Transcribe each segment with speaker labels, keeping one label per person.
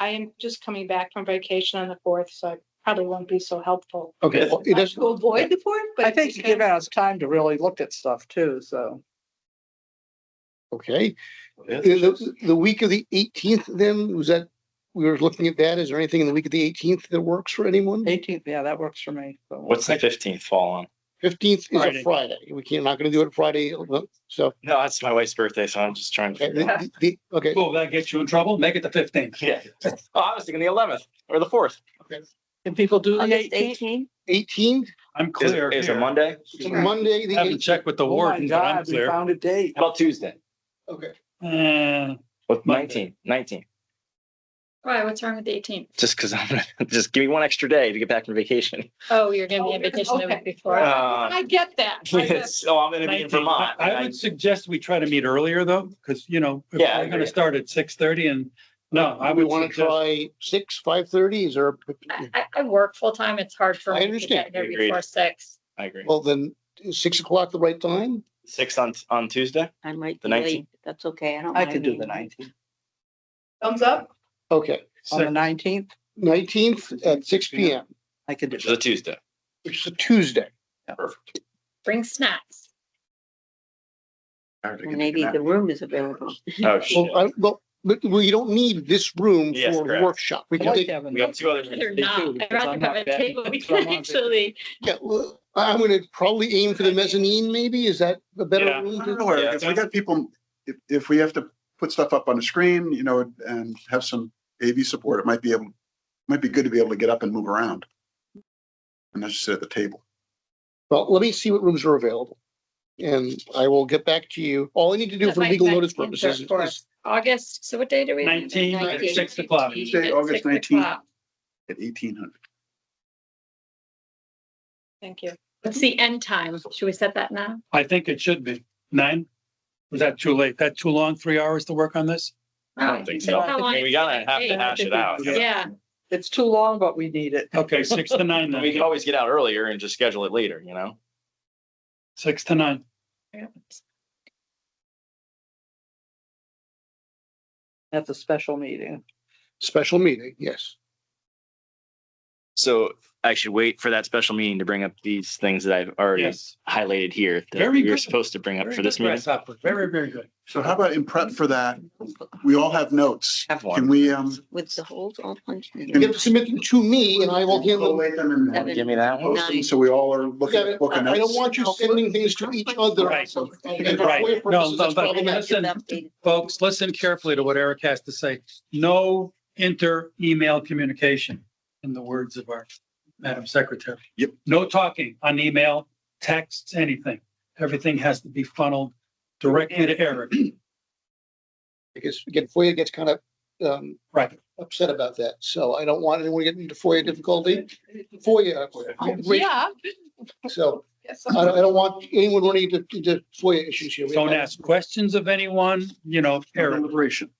Speaker 1: I am just coming back from vacation on the fourth, so I probably won't be so helpful.
Speaker 2: Okay,
Speaker 3: Well,
Speaker 2: it is-
Speaker 3: To avoid the fourth, but.
Speaker 4: I think you give us time to really look at stuff too, so.
Speaker 2: okay. The, the- the week of the eighteenth then, was that, we were looking at that. Is there anything in the week of the eighteenth that works for anyone?
Speaker 3: Mm-hmm.
Speaker 4: Eighteenth, yeah, that works for me. so.
Speaker 5: What's the fifteenth fall on?
Speaker 2: Fifteenth is a
Speaker 4: Friday.
Speaker 2: Friday. We can't, not gonna do it Friday, so.
Speaker 5: No, that's my wife's birthday, so I'm just trying to.
Speaker 2: okay,
Speaker 5: figure out.
Speaker 2: the- the- Okay,
Speaker 6: Will that get you in trouble? Make it the fifteenth.
Speaker 5: Yeah. Oh, I was thinking the eleventh or the fourth.
Speaker 4: Can people do the
Speaker 3: August
Speaker 4: eighteenth?
Speaker 3: eighteen,
Speaker 2: eighteen,
Speaker 6: I'm
Speaker 5: Is,
Speaker 6: clear
Speaker 5: is it
Speaker 6: here.
Speaker 5: Monday?
Speaker 2: Monday, the
Speaker 6: Haven't
Speaker 2: eighteenth.
Speaker 6: checked with the
Speaker 4: Oh my
Speaker 6: warden, but I'm
Speaker 4: God, we
Speaker 6: clear.
Speaker 4: found a date.
Speaker 5: How about Tuesday?
Speaker 2: Okay,
Speaker 6: Eh,
Speaker 5: What,
Speaker 6: Monday.
Speaker 5: nineteen, nineteen?
Speaker 7: Why, what's wrong with the eighteenth?
Speaker 5: Just because I'm, gonna- just give me one extra day to get back from vacation.
Speaker 7: Oh, you're gonna be
Speaker 1: Oh,
Speaker 7: in vacation the
Speaker 1: okay.
Speaker 7: week before.
Speaker 5: Uh,
Speaker 1: I get that. I get
Speaker 5: yes, oh, I'm gonna be
Speaker 6: 19.
Speaker 5: in Vermont.
Speaker 6: I I would suggest we try to meet earlier though, because you know, if
Speaker 5: Yeah, I
Speaker 6: we're gonna
Speaker 5: agree.
Speaker 6: start at six thirty and, no, I
Speaker 2: we
Speaker 6: would
Speaker 2: wanna
Speaker 6: suggest.
Speaker 2: try six, five thirty, is there? a-
Speaker 7: I, I, I work full-time. It's hard for
Speaker 2: I
Speaker 7: me to
Speaker 2: understand.
Speaker 7: get there
Speaker 5: Agreed.
Speaker 7: before six.
Speaker 5: I agree.
Speaker 2: Well, then, is six o'clock the right time?
Speaker 5: Sixth on, on Tuesday?
Speaker 3: I might
Speaker 5: The
Speaker 3: be
Speaker 5: 19th.
Speaker 3: late, that's okay, I don't.
Speaker 4: I
Speaker 3: mind
Speaker 4: could do
Speaker 3: being
Speaker 4: the
Speaker 3: late.
Speaker 4: nineteenth,
Speaker 1: Thumbs up.
Speaker 2: Okay,
Speaker 4: on the
Speaker 6: six.
Speaker 4: nineteenth,
Speaker 2: nineteenth at six P M,
Speaker 4: I could do
Speaker 5: Which is a
Speaker 4: it.
Speaker 5: Tuesday.
Speaker 2: which is a Tuesday.
Speaker 7: Bring snacks.
Speaker 3: Well, Maybe the room is available.
Speaker 5: Oh, shit.
Speaker 2: Well, I, well, but we don't need this room
Speaker 5: Yes,
Speaker 2: for a
Speaker 5: correct.
Speaker 2: workshop. We
Speaker 4: I
Speaker 2: can
Speaker 4: like
Speaker 2: take,
Speaker 4: having
Speaker 5: We have
Speaker 4: that.
Speaker 5: two other.
Speaker 7: They're
Speaker 4: do,
Speaker 7: not. I'd
Speaker 4: because I'm
Speaker 7: rather
Speaker 4: not
Speaker 7: have a
Speaker 4: bad.
Speaker 7: table. We
Speaker 4: So I'm
Speaker 7: can
Speaker 4: on
Speaker 7: actually,
Speaker 2: yeah, well, I'm gonna probably aim for the mezzanine, maybe? Is that a better
Speaker 5: Yeah.
Speaker 2: room?
Speaker 8: I
Speaker 2: to-
Speaker 8: don't know where,
Speaker 5: Yeah,
Speaker 8: if we got people, if, if we have to put stuff up on the screen, you know, and have some AV support, it might be able, might be good to be able to get up and move around. And not just sit at the table.
Speaker 2: Well, let me see what rooms are available. And I will get back to you. All I need to do
Speaker 7: That
Speaker 2: for
Speaker 7: might-
Speaker 2: legal
Speaker 7: might
Speaker 2: notice
Speaker 7: insert
Speaker 2: purposes
Speaker 7: for
Speaker 2: is,
Speaker 7: August, so what day do we?
Speaker 6: 19,
Speaker 3: at
Speaker 7: 19,
Speaker 6: six o'clock.
Speaker 8: Tuesday,
Speaker 7: at
Speaker 8: August
Speaker 7: six
Speaker 8: 19.
Speaker 7: o'clock.
Speaker 8: At eighteen hundred.
Speaker 1: Thank you.
Speaker 7: What's the end time? Should we set that now?
Speaker 6: I think it should be nine. Was that too late? That too long, three hours to work on this?
Speaker 5: I don't think so.
Speaker 7: How long
Speaker 5: I mean, We
Speaker 7: it's
Speaker 5: gotta
Speaker 7: gonna
Speaker 5: have to
Speaker 7: take.
Speaker 5: hash it out.
Speaker 4: Yeah.
Speaker 7: Yeah,
Speaker 4: It's too long, but we need it.
Speaker 6: Okay, six to nine
Speaker 5: We can
Speaker 6: then,
Speaker 5: always get out earlier and just schedule it later, you know?
Speaker 6: six to nine.
Speaker 4: That's a special meeting.
Speaker 2: special meeting, yes.
Speaker 5: So I should wait for that special meeting to bring up these things that I've already
Speaker 6: Yes.
Speaker 5: highlighted here that
Speaker 6: Very
Speaker 5: we were
Speaker 6: good.
Speaker 5: supposed to bring up
Speaker 6: Very
Speaker 5: for this
Speaker 6: good,
Speaker 5: meeting.
Speaker 6: Grasshopper. Very, very good.
Speaker 8: So how about in prep for that, we all have notes.
Speaker 5: Have one.
Speaker 8: Can we, um,
Speaker 3: With the holes all punched in.
Speaker 2: You have to submit them to me and I will handle them.
Speaker 8: collate them and
Speaker 3: Seven,
Speaker 5: Give me that one.
Speaker 8: post them
Speaker 3: nine.
Speaker 8: So we all are
Speaker 2: Yeah,
Speaker 8: looking at
Speaker 2: but
Speaker 8: book of
Speaker 2: I don't
Speaker 8: notes.
Speaker 2: want you sending things to each other.
Speaker 6: Right.
Speaker 2: For
Speaker 6: Right.
Speaker 2: FOIA
Speaker 6: No,
Speaker 2: purposes,
Speaker 6: no,
Speaker 2: that's
Speaker 6: but-
Speaker 2: problematic.
Speaker 6: listen, folks, listen carefully to what Eric has to say. No inter-email communication, in the words of our Madam Secretary.
Speaker 8: Yep.
Speaker 6: No talking on email, texts, anything. Everything has to be funneled directly to Eric.
Speaker 2: Because again, FOIA gets kind of um
Speaker 6: Right.
Speaker 2: upset about that. So I don't want anyone getting into FOIA difficulty. FOIA.
Speaker 6: Oh,
Speaker 1: Yeah.
Speaker 2: So
Speaker 1: Yes.
Speaker 2: I don't, I don't want anyone running into, into FOIA issues here. We
Speaker 6: Don't
Speaker 2: have-
Speaker 6: ask questions of anyone, you know, Eric.
Speaker 8: Deliberation.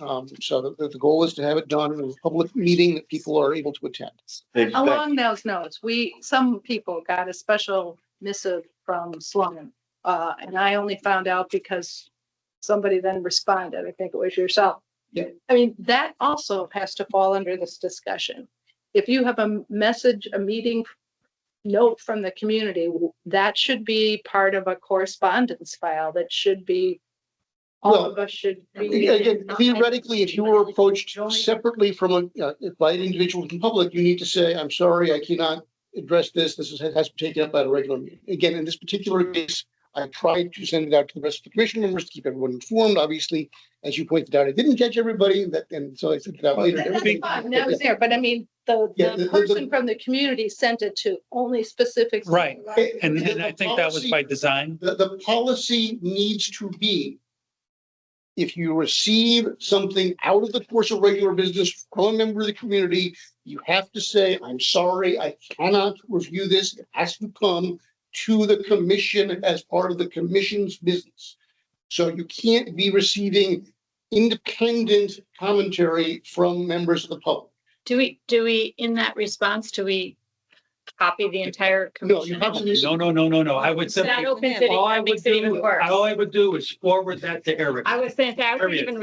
Speaker 2: Um, so the, the goal is to have it done in a public meeting that people are able to attend.
Speaker 1: Along those notes, we, some people got a special missive from Sloan. Uh, and I only found out because somebody then responded. I think it was yourself.
Speaker 2: Yeah.
Speaker 1: I mean, that also has to fall under this discussion. If you have a message, a meeting note from the community, that should be part of a correspondence file. That should be, all of us should be.
Speaker 2: Again, theoretically, if you were approached separately from a, uh, by an individual in public, you need to say, I'm sorry, I cannot address this. This is, has been taken up at a regular meeting. Again, in this particular case, I tried to send it out to the rest of the commission members to keep everyone informed. Obviously, as you pointed out, I didn't catch everybody that, and so I sent it out later.
Speaker 1: That- That's
Speaker 2: Everything-
Speaker 1: fine, that was there, but I mean, the,
Speaker 2: Yeah, the-
Speaker 1: the
Speaker 2: the-
Speaker 1: person from the community sent it to only specific.
Speaker 6: Right. And, and I think that was by design.
Speaker 2: The, the policy needs to be if you receive something out of the course of regular business from a member of the community, you have to say, I'm sorry, I cannot review this. It has to come to the commission as part of the commission's business. So you can't be receiving independent commentary from members of the public.
Speaker 7: do we, do we, in that response, do we copy the entire
Speaker 2: No, you
Speaker 7: commission?
Speaker 2: have to do
Speaker 6: No, no, no, no, no. I would
Speaker 7: It's not
Speaker 6: simply,
Speaker 7: open sitting,
Speaker 6: all I
Speaker 7: that
Speaker 6: would
Speaker 7: makes it even
Speaker 6: do,
Speaker 7: worse.
Speaker 6: all I would do is forward that to Eric.
Speaker 7: I was saying, I would
Speaker 6: Period.
Speaker 7: even